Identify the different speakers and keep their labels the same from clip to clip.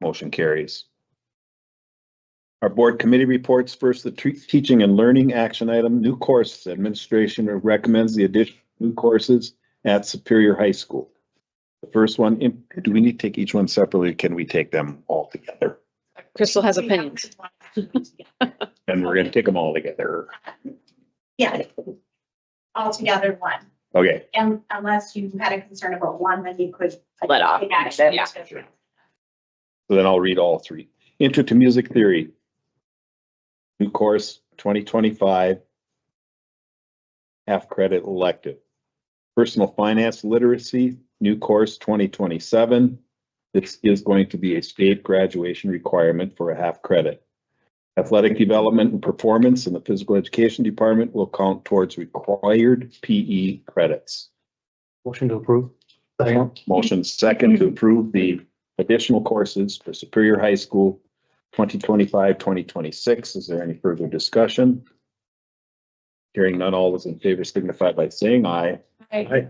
Speaker 1: Motion carries. Our board committee reports, first, the tre- teaching and learning action item, new courses. Administration recommends the addition of new courses at Superior High School. The first one, im- do we need to take each one separately? or Can we take them all together?
Speaker 2: Crystal has
Speaker 3: We have
Speaker 2: opinions.
Speaker 3: this one.
Speaker 1: And we're gonna take them all together.
Speaker 3: Yeah. Altogether one,
Speaker 1: Okay,
Speaker 3: and unless you had a concern about one, then you could. like,
Speaker 2: Let off.
Speaker 3: take action.
Speaker 2: Yeah.
Speaker 1: Sure. so then I'll read all three. Intro to Music Theory. New course, twenty twenty-five. Half credit elective. Personal Finance Literacy, new course, twenty twenty-seven. This is going to be a state graduation requirement for a half credit. Athletic Development and Performance in the Physical Education Department will count towards required PE credits.
Speaker 4: Motion to approve. Second.
Speaker 1: Motion second to approve the additional courses for Superior High School 2025-2026. Is there any further discussion? Hearing none, all those in favor signify by saying aye.
Speaker 4: Aye.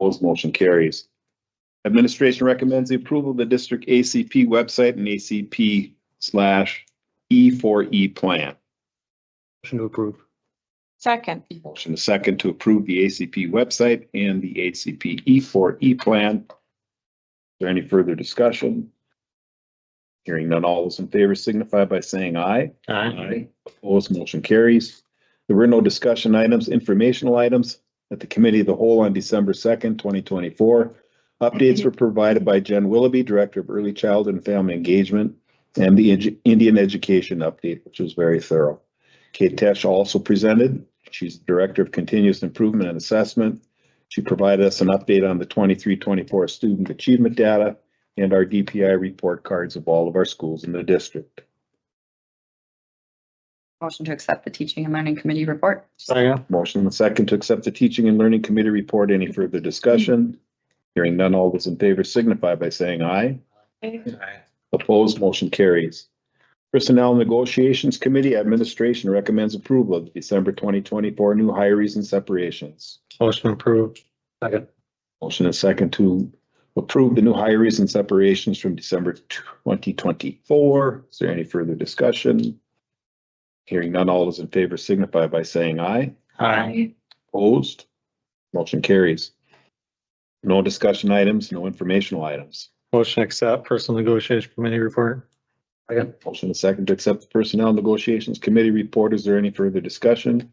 Speaker 1: Opposed, motion carries. Administration recommends the approval of the district ACP website and ACP slash E four E plan.
Speaker 4: Motion to approve.
Speaker 2: Second.
Speaker 1: Motion is second to approve the ACP website and the ACP E4E plan. E Is there any further discussion? Hearing none, all those in favor signify by saying aye. Opposed, motion carries. There were no discussion items, informational items at the committee of the whole on December second, twenty twenty-four. Updates were provided by Jen Willoughby, Director of Early Childhood and Family Engagement, and the Edu- Indian Education Update, which was very thorough. Kate Tesh also presented. She's Director of Continuous Improvement and Assessment. She provided us an update on the 23-24 student achievement data and our DPI report cards of all of our schools in the district.
Speaker 5: Motion to accept the teaching and learning committee report.
Speaker 4: Second.
Speaker 1: Motion and second to accept the teaching and learning committee report. Any further discussion? Hearing none, all those in favor signify by saying aye. Opposed, motion carries. Personnel Negotiations Committee Administration recommends approval of December twenty twenty-four new hires and separations.
Speaker 4: Motion approved. Second.
Speaker 1: Motion and second to approve the new hires and separations from December twenty twenty-four. Is there any further discussion? Hearing none, all those in favor signify by saying aye. Opposed? Motion carries. No discussion items, no informational items.
Speaker 4: Motion to accept personal negotiation committee report. Second.
Speaker 1: Motion to second to accept the Personnel Negotiations Committee report. Is there any further discussion?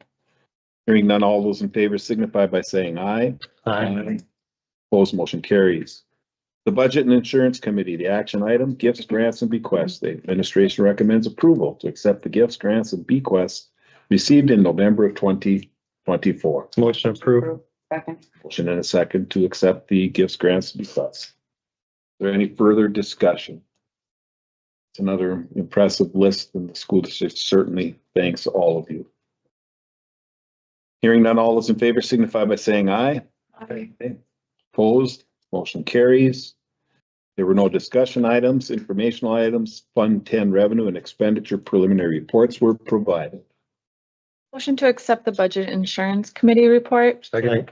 Speaker 1: Hearing none, all those in favor signify by saying aye. Opposed, motion carries. The Budget and Insurance Committee, the action item, gifts, grants, and bequests. The administration recommends approval to accept the gifts, grants, and bequests received in November of twenty twenty-four.
Speaker 4: Motion approved.
Speaker 5: Second.
Speaker 1: Motion and a second to accept the gifts, grants, and bequests. Is there any further discussion? It's another impressive list and the school district certainly thanks all of you. Hearing none, all those in favor signify by saying aye.
Speaker 3: Aye.
Speaker 1: Opposed, motion carries. There were no discussion items, informational items, Fund Ten revenue and expenditure preliminary reports were provided.
Speaker 2: Motion to accept the budget insurance committee report.
Speaker 4: Second.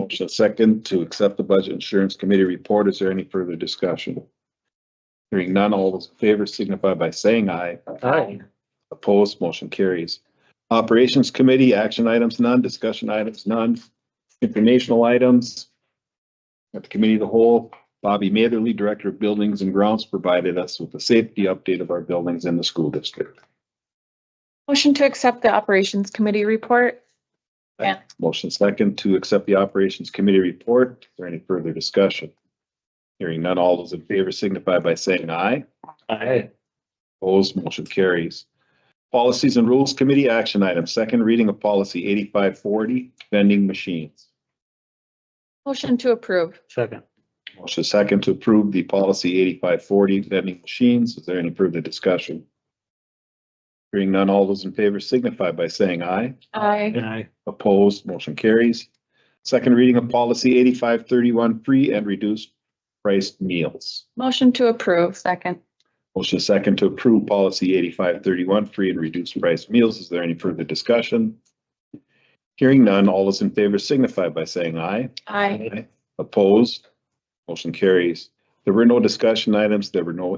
Speaker 1: Motion second to accept the Budget Insurance Committee report. Is there any further discussion? Hearing none, all those in favor signify by saying aye.
Speaker 4: Aye.
Speaker 1: Opposed, motion carries. Operations Committee, action items, none, discussion items, none, informational items. At the Committee of the Whole, Bobby Matherly, Director of Buildings and Grounds, provided us with a safety update of our buildings in the school district.
Speaker 2: Motion to accept the operations committee report. Yeah.
Speaker 1: Motion second to accept the Operations Committee report. Is there any further discussion? Hearing none, all those in favor signify by saying aye.
Speaker 4: Aye.
Speaker 1: Opposed, motion carries. Policies and Rules Committee action item, second reading of policy eighty-five forty, vending machines.
Speaker 2: Motion to approve.
Speaker 4: Second.
Speaker 1: Motion second to approve the policy eighty-five forty, vending machines. Is there any further discussion? Hearing none, all those in favor signify by saying aye.
Speaker 2: Aye.
Speaker 4: Aye.
Speaker 1: Opposed, motion carries. Second reading of policy eighty-five thirty-one, free and reduced priced meals.
Speaker 2: Motion to approve.
Speaker 5: Second.
Speaker 1: Motion second to approve policy eighty-five thirty-one, free and reduced priced meals. Is there any further discussion? Hearing none, all those in favor signify by saying aye.
Speaker 2: Aye.
Speaker 1: Opposed, motion carries. There were no discussion items, there were no